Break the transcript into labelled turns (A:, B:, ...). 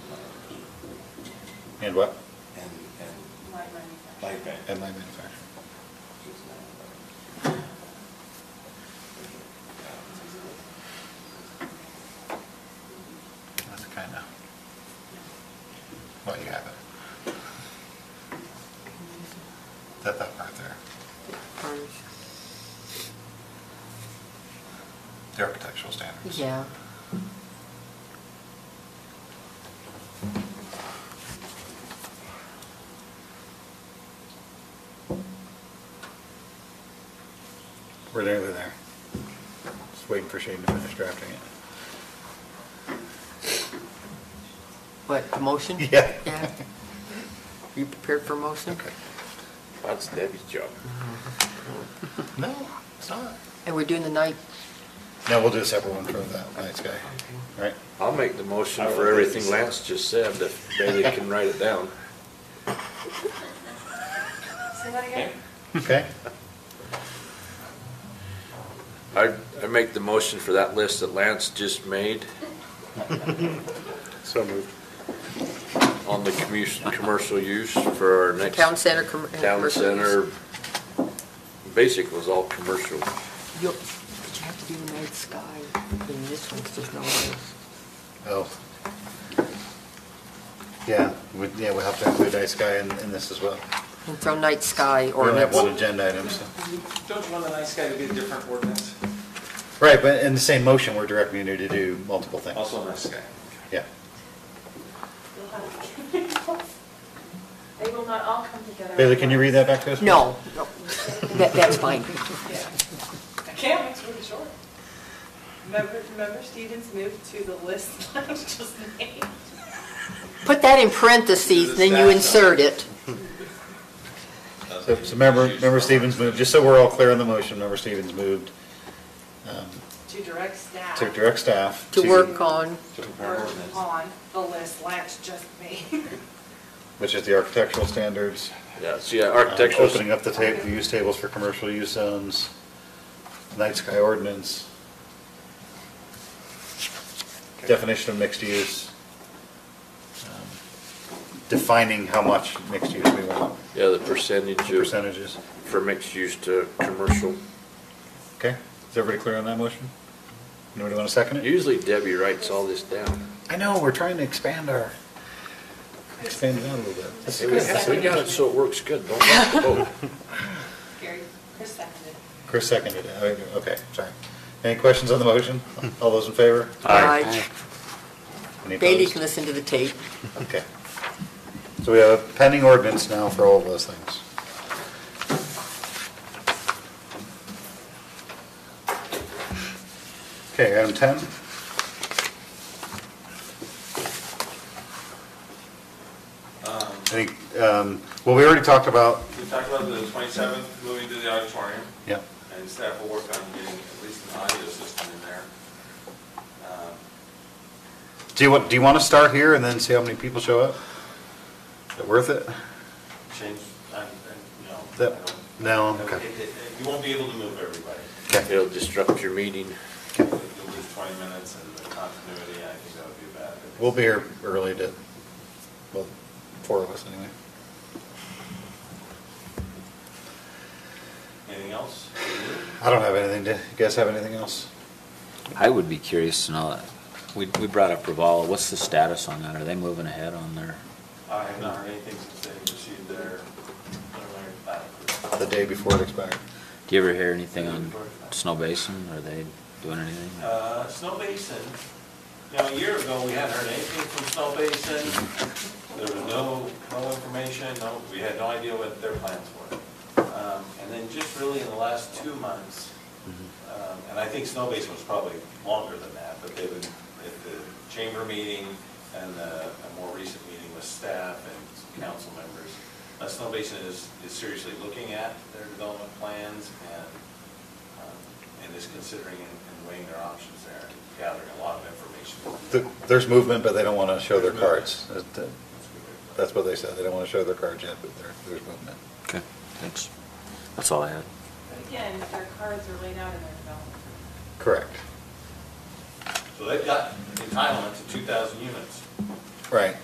A: And what?
B: and, and
C: Light manufacturing.
B: light bank.
A: And light manufacturing. That's kind of, well, you have it. That, that part there, the architectural standards.
D: Yeah.
A: We're nearly there. Just waiting for Shane to finish drafting it.
D: What, the motion?
A: Yeah.
D: Yeah. You prepared for motion?
A: Okay.
B: That's Debbie's job.
A: No, it's not.
D: And we're doing the night,
A: No, we'll do a separate one for that nice guy, right?
E: I'll make the motion
B: I
E: for
B: will do
E: everything
B: this.
E: Lance just said, if Bailey can write it down.
C: Say that again?
A: Okay?
E: I, I make the motion for that list that Lance just made
B: So moved.
E: on the commu- commercial use for our next.
D: town center. com- uh,
E: Town
D: commercial use.
E: center, basic was all commercial.
D: You'll- But you have to do the night sky, and this one's just no lights.
A: Oh. Yeah, we, yeah, we'll have to include Ice Guy in, in this as well.
D: And throw night sky
A: We only have one
D: ordinance.
A: agenda item, so.
F: Don't you want a nice guy to be a different ordinance?
A: Right, but in the same motion, we're directing you to do multiple things.
F: Also a nice guy.
A: Yeah.
C: They will not all come together.
A: Bailey, can you read that back to us?
D: No, no, that, that's fine.
C: Yeah. I can, it's really short. Member, member Stevens moved to the list that was just named.
D: Put that in parentheses, then you insert it.
A: So, so member, member Stevens moved, just so we're all clear on the motion, member Stevens moved um,
C: To direct staff.
A: to direct staff.
D: To work on,
B: To prepare
C: Work
B: ordinance.
C: on the list Lance just made.
A: Which is the architectural standards.
E: Yeah, uh, so yeah,
A: um,
E: architectural,
A: Opening up the table, use tables for commercial use zones, night sky ordinance. Definition of mixed use. um, Defining how much mixed use we want,
E: yeah, the percentage of,
A: percentages.
E: for mixed use to commercial.
A: Okay, is everybody clear on that motion? Anybody want to second it?
E: Usually Debbie writes all this down.
A: I know, we're trying to expand our, expand it out a little bit. This
E: Hey,
A: is
E: We
A: good.
E: we got it so it works good, don't rock the boat.
C: Gary, Chris seconded.
A: Chris seconded it, Oh, okay, sorry. Any questions on the motion? All those in favor?
D: Aye.
A: Any
D: Bailey
A: opposed?
D: can listen to the tape.
A: Okay. So we have a pending ordinance now for all of those things. Okay, item 10.
F: Um,
A: I think, um, well, we already talked about,
F: We talked about the 27th moving to the auditorium,
A: yeah,
F: and staff will work on getting at least an audio system in there. Um,
A: do you want, do you want to start here and then see how many people show up? Is it worth it?
F: Change, and, no.
A: That- no, okay.
F: It- it- it- You won't be able to move everybody.
A: Okay.
E: It'll disrupt your meeting.
F: You'll lose 20 minutes and the continuity, I think that would be bad.
A: We'll be here early to, well, four of us anyway.
F: Anything else?
A: I don't have anything to, you guys have anything else?
G: I would be curious to know, we, we brought up Ravala, what's the status on that? Are they moving ahead on their,
F: I have not heard anything since they received their preliminary plat approval.
A: The day before it expired.
G: do you ever hear anything on Snow Basin? Are they doing anything?
F: Uh, Snow Basin, now, a year ago, we hadn't heard anything from Snow Basin. There was no, no information, no, we had no idea what their plans were. Um, And then just really in the last two months, um, and I think Snow Basin was probably longer than that, but they would, at the chamber meeting and uh, a more recent meeting with staff and council members, uh, Snow Basin is, is seriously looking at their development plans and um, and is considering and and weighing their options there, and gathering a lot of
A: Th-
F: information.
A: There's movement, but they don't want to show their cards. That- That's what they said, they don't want to show their cards yet, but there- there's movement.
G: Okay, thanks. That's all I had.
C: But again, their cards are laid out in their development.
A: Correct.
F: So they've got entitlement to 2,000 units.
A: Right.